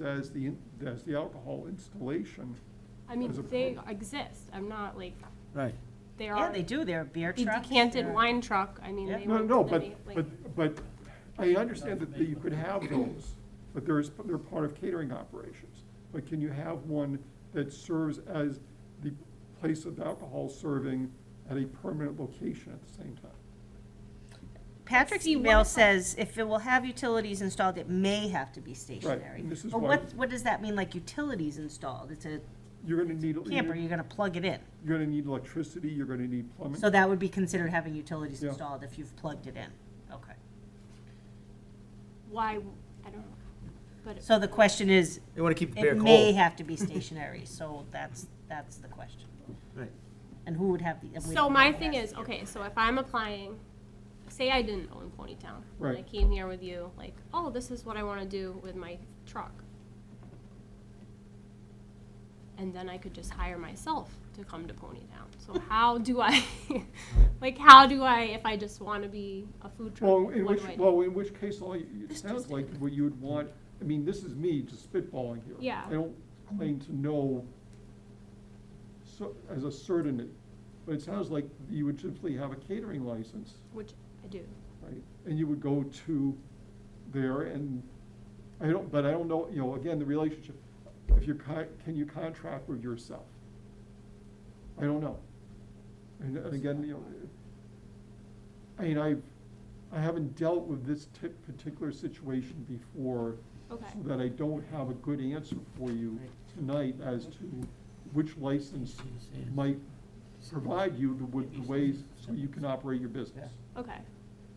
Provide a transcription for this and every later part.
says the, does the alcohol installation, I mean, As a they pro- exist. I'm not like, Right. they Yeah, are they do, they're beer a trucks. decanted they're- wine truck. I mean, Yeah. they no, went no, to the, but, like, but, but I understand that you could have those, but there's, they're part of catering operations. But can you have one that serves as the place of alcohol serving at a permanent location at the same time? Patrick's See, what email if I- says if it will have utilities installed, it may have to be stationary. and this is But why- what, what does that mean, like utilities installed? It's a You're gonna need, camper, you're you're gonna plug it in. gonna need electricity, you're gonna need plumbing. So that would be considered having utilities Yeah. installed if you've plugged it in. Okay. why, I don't know. But it- So the question is, They want to keep the beer it may cold. have to be stationary, so that's, that's the question. Right. And who would have the? and we So don't know my who thing has is, the- okay, so if I'm applying, say I didn't own Ponytown. and I Right. came here with you, like, oh, this is what I wanna do with my truck. And then I could just hire myself to come to Ponytown. So how do I, like, how do I, if I just wanna be a food truck, Well, what in do which, I do? well, in which case, all, you- it sounds like what you would want, I mean, this is me just spitballing here. Yeah. I don't claim to know so, as a certainty, but it sounds like you would simply have a catering license, Which I do. right? And you would go to there and, I don't, but I don't know, you know, again, the relationship, if you're con, can you contract with yourself? I don't know. And and again, you know, I mean, I've, I haven't dealt with this ti- particular situation before. Okay. so That I don't have a good answer for you tonight as to which license might provide you the, with the ways so you can operate your business. Okay.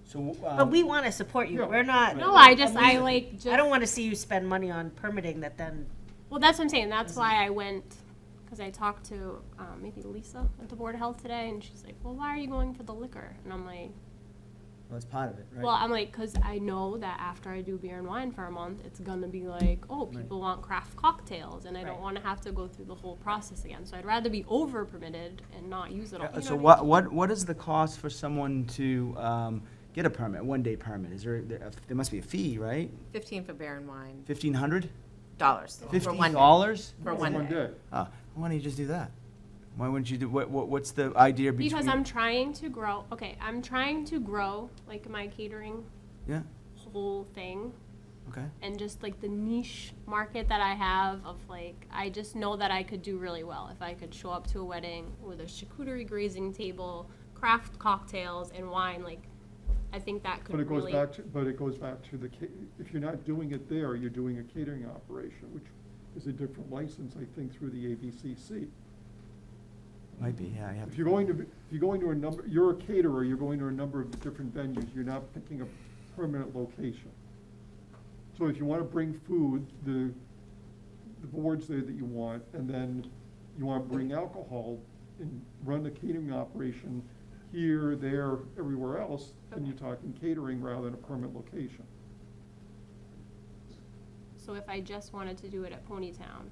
So, But we um, wanna support you. Yeah. We're not. No, I just, I like, just. I don't wanna see you spend money on permitting that then Well, that's what I'm saying. That's why I went, because I talked to um, maybe Lisa at the Board of Health today, and she's like, well, why are you going for the liquor? And I'm like, that's part of it, right? well, I'm like, because I know that after I do beer and wine for a month, it's going to be like, oh, people want craft cocktails, and I Right. don't want to have to go through the whole process again. So I'd rather be over permitted and not use it all. Uh, you know So what I what, what, what is the cost for someone to um, get a permit, one-day permit? Is there, there uh, there must be a fee, right? 15 for beer and wine, Fifteen hundred? dollars. for Fifty one day. dollars? For one day. Ah, why don't you just do that? Why wouldn't you do, what, what, what's the idea between? Because I'm trying to grow, okay, I'm trying to grow, like, my catering Yeah, whole thing. okay. and just like the niche market that I have of like I just know that I could do really well if I could show up to a wedding with a charcuterie grazing table, craft cocktails and wine. Like I think that could But it goes really back to, but it goes back to the, ca- if you're not doing it there, you're doing a catering operation, which is a different license, I think, through the ABCC. Might be, yeah, you have If to- you're going to, if you're going to a number, you're a caterer, you're going to a number of different venues, you're not picking a permanent location. So if you want to bring food, the, the board's there that you want, and then you want to bring alcohol and run the catering operation here, there, everywhere else, then you're talking catering rather than a permanent location. so if I just wanted to do it at Ponytown.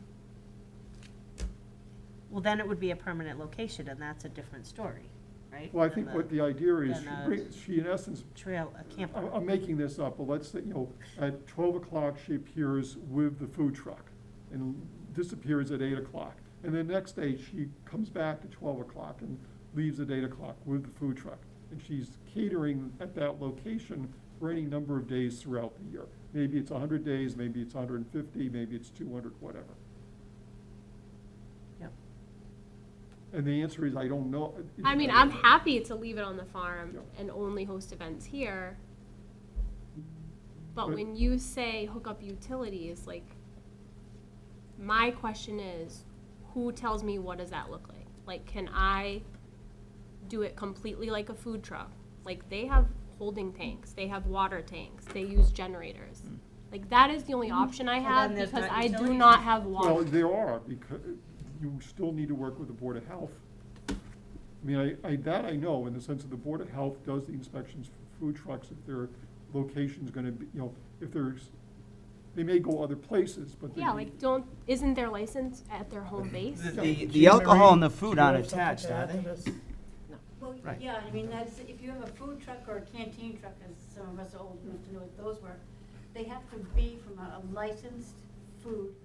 Well, then it would be a permanent location, and that's a different story, right? Well, I think Than what the idea is, then, she uh, bring- she in essence Trail, a I'm, camper. I'm making this up, but let's say, you know, at twelve o'clock, she appears with the food truck and disappears at eight o'clock. And the next day, she comes back at twelve o'clock and leaves at eight o'clock with the food truck. And she's catering at that location for any number of days throughout the year. Maybe it's hundred days, maybe it's hundred and fifty, maybe it's two hundred, whatever. Yep. And the answer is, I don't know. I mean, I'm happy to leave it on the farm Yeah. and only host events here. But But- when you say hook up utilities, like, my question is, who tells me what does that look like? Like, can I do it completely like a food truck? Like, they have holding tanks, they have water tanks, they use generators. Hmm. Like, that is the only option I So have Hmm. then there's because not I do utilities. not have Well, water. there are, because you still need to work with the Board of Health. I mean, I, I, that I know, in the sense that the Board of Health does the inspections for food trucks if their location's gonna be, you know, if there's, they may go other places, but they. Yeah, like, don't, isn't their license at their home base? The, the alcohol and the food aren't attached, are they? Well, Right. yeah, I mean, that's, if you have a food truck or a canteen truck, as some of us are old enough to know what those were, they have to be from a a licensed food,